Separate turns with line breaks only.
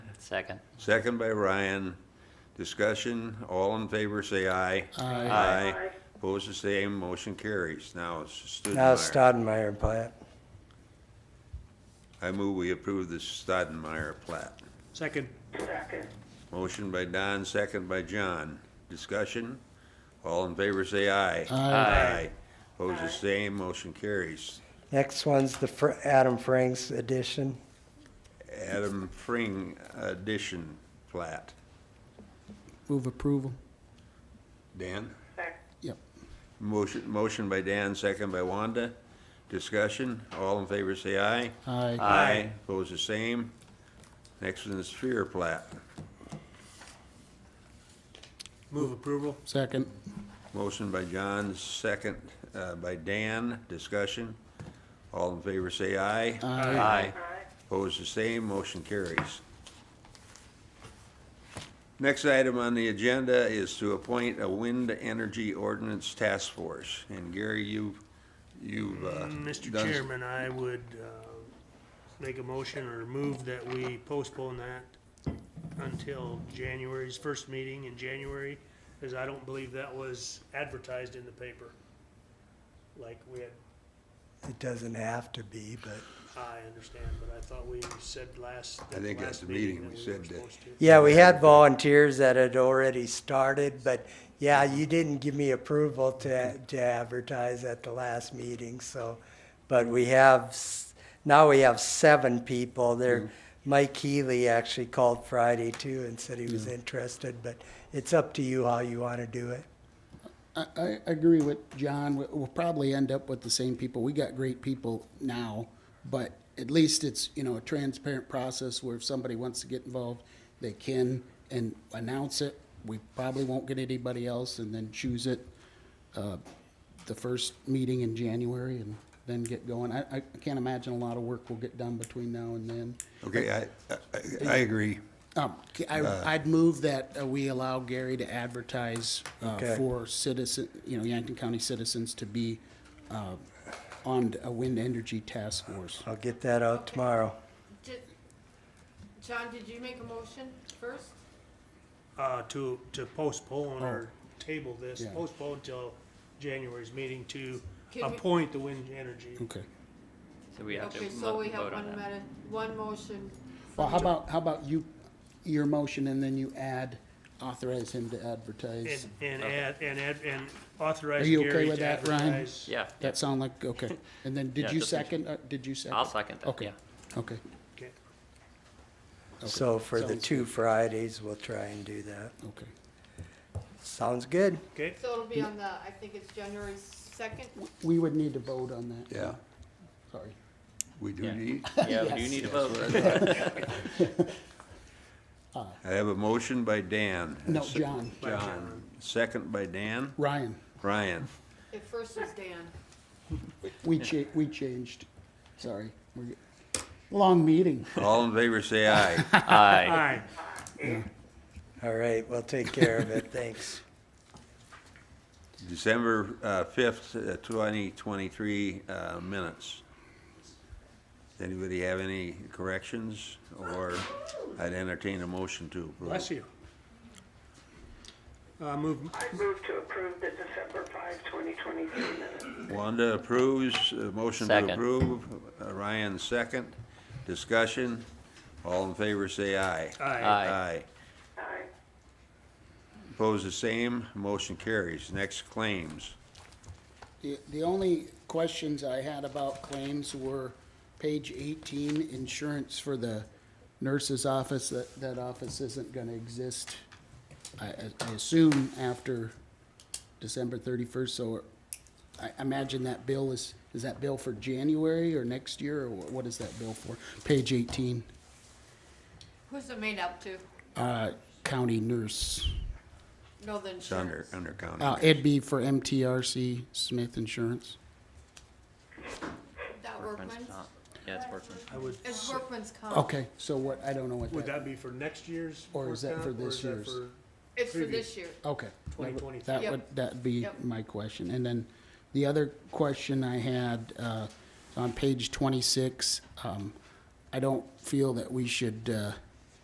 Second.
Second by Ryan. Discussion, all in favor, say aye.
Aye.
Aye. Opposed, the same, motion carries. Now it's
Now
Stoudemire.
Stoudemire plat.
I move we approve the Stoudemire plat.
Second.
Motion by Don, second by John. Discussion, all in favor, say aye.
Aye.
Opposed, the same, motion carries.
Next one's the Fr- Adam Franks addition.
Adam Fring addition plat.
Move approval.
Dan?
Yep.
Motion, motion by Dan, second by Wanda. Discussion, all in favor say aye.
Aye.
Aye. Oppose the same. Next one is Sphere plat.
Move approval. Second.
Motion by John, second uh, by Dan. Discussion, all in favor say aye.
Aye.
Opposed, the same, motion carries. Next item on the agenda is to appoint a wind energy ordinance task force. And Gary, you, you've. uh,
Mr.
done-
Mm, Chairman, I would uh, make a motion or move that we postpone that until January's first meeting in January, because I don't believe that was advertised in the paper. Like we had,
It doesn't have to be, but,
I understand, but I thought we said last.
I think at
last
the meeting we
that
said
were
that-
supposed to.
yeah, we had volunteers that had already started, but, yeah, you didn't give me approval to, to advertise at the last meeting, so, but we have, s- now we have seven people there. Mike Healy actually called Friday too and said he was interested, but it's up to you how you want to do it.
I, I agree with John. We- We'll probably end up with the same people. We got great people now, but at least it's, you know, a transparent process where if somebody wants to get involved, they can and announce it. We probably won't get anybody else and then choose it, uh, the first meeting in January and then get going. I, I can't imagine a lot of work will get done between now and then.
Okay, I, I- I agree.
Um, c- I, would move that uh, we allow Gary to advertise uh,
Okay.
for citizen, you know, Yankton County citizens to be uh, on a wind energy task force.
I'll get that out tomorrow.
Did- John, did you make a motion first?
Uh, To, to postpone or table this,
Yeah.
postpone till January's meeting to
Can we-
appoint the wind energy.
Okay.
So we have to
Okay,
mo-
so we have
vote
one
on that.
meta, one motion.
Well, how about, how about you, your motion, and then you add, authorize him to advertise?
And, and add, and add, and authorize
Are you okay
Gary
with
to
that, Ryan?
advertise.
Yeah,
That sound like, okay. And then,
Yeah,
did you
just make sure.
second, uh, did you 2nd
I'll second that,
Okay.
yeah.
Okay.
Okay.
So for the
Sounds
two Fridays, we'll try and do that.
Okay.
Sounds good.
Okay,
So it'll be on the, I think it's January second.
We would need to vote on that.
Yeah,
Sorry.
we do
Yeah.
need.
Yeah, we do need a vote.
I have a motion by Dan.
No, John.
John, second by Dan.
Ryan,
Ryan,
At first was Dan.
we cha, we changed. Sorry. We're- Long meeting.
all in favor, say aye.
all
Aye.
right.
All right, we'll take care of it. Thanks.
December uh, 5th, uh, 2023 uh, minutes. Does anybody have any corrections, or I'd entertain a motion to approve?
Bless you. Uh, move,
I move to approve the December 5, 2023 minutes.
Wanda approves, uh, motion to
Second.
approve, Uh, Ryan second, discussion, all in favor say aye.
aye.
Aye.
Aye.
Opposed the same, motion carries, next claims.
The the only questions I had about claims were page 18, insurance for the nurse's office, that, that office isn't going to exist, I, I- I assume, after December 31st, so I imagine that bill is, is that bill for January or next year, or wh- what is that bill for? Page 18,
Who's it made up to?
uh, county nurse.
No, the
It's under,
insurance.
under county.
Uh, It'd be for MTRC Smith Insurance.
That
Workman's
workman's?
comp. Yeah, it's workman's.
I would,
It's workman's comp.
Okay, so what, I don't know what
would
that,
that be for next year's?
Or is
work
that for
comp, or
this
is that
year's?
for-
It's for
previous.
this year.
okay. that would-
2023.
That
Yep.
would, that'd be
Yep.
my question. And then the other question I had, uh, on page twenty-six, um, I don't feel that we should, uh,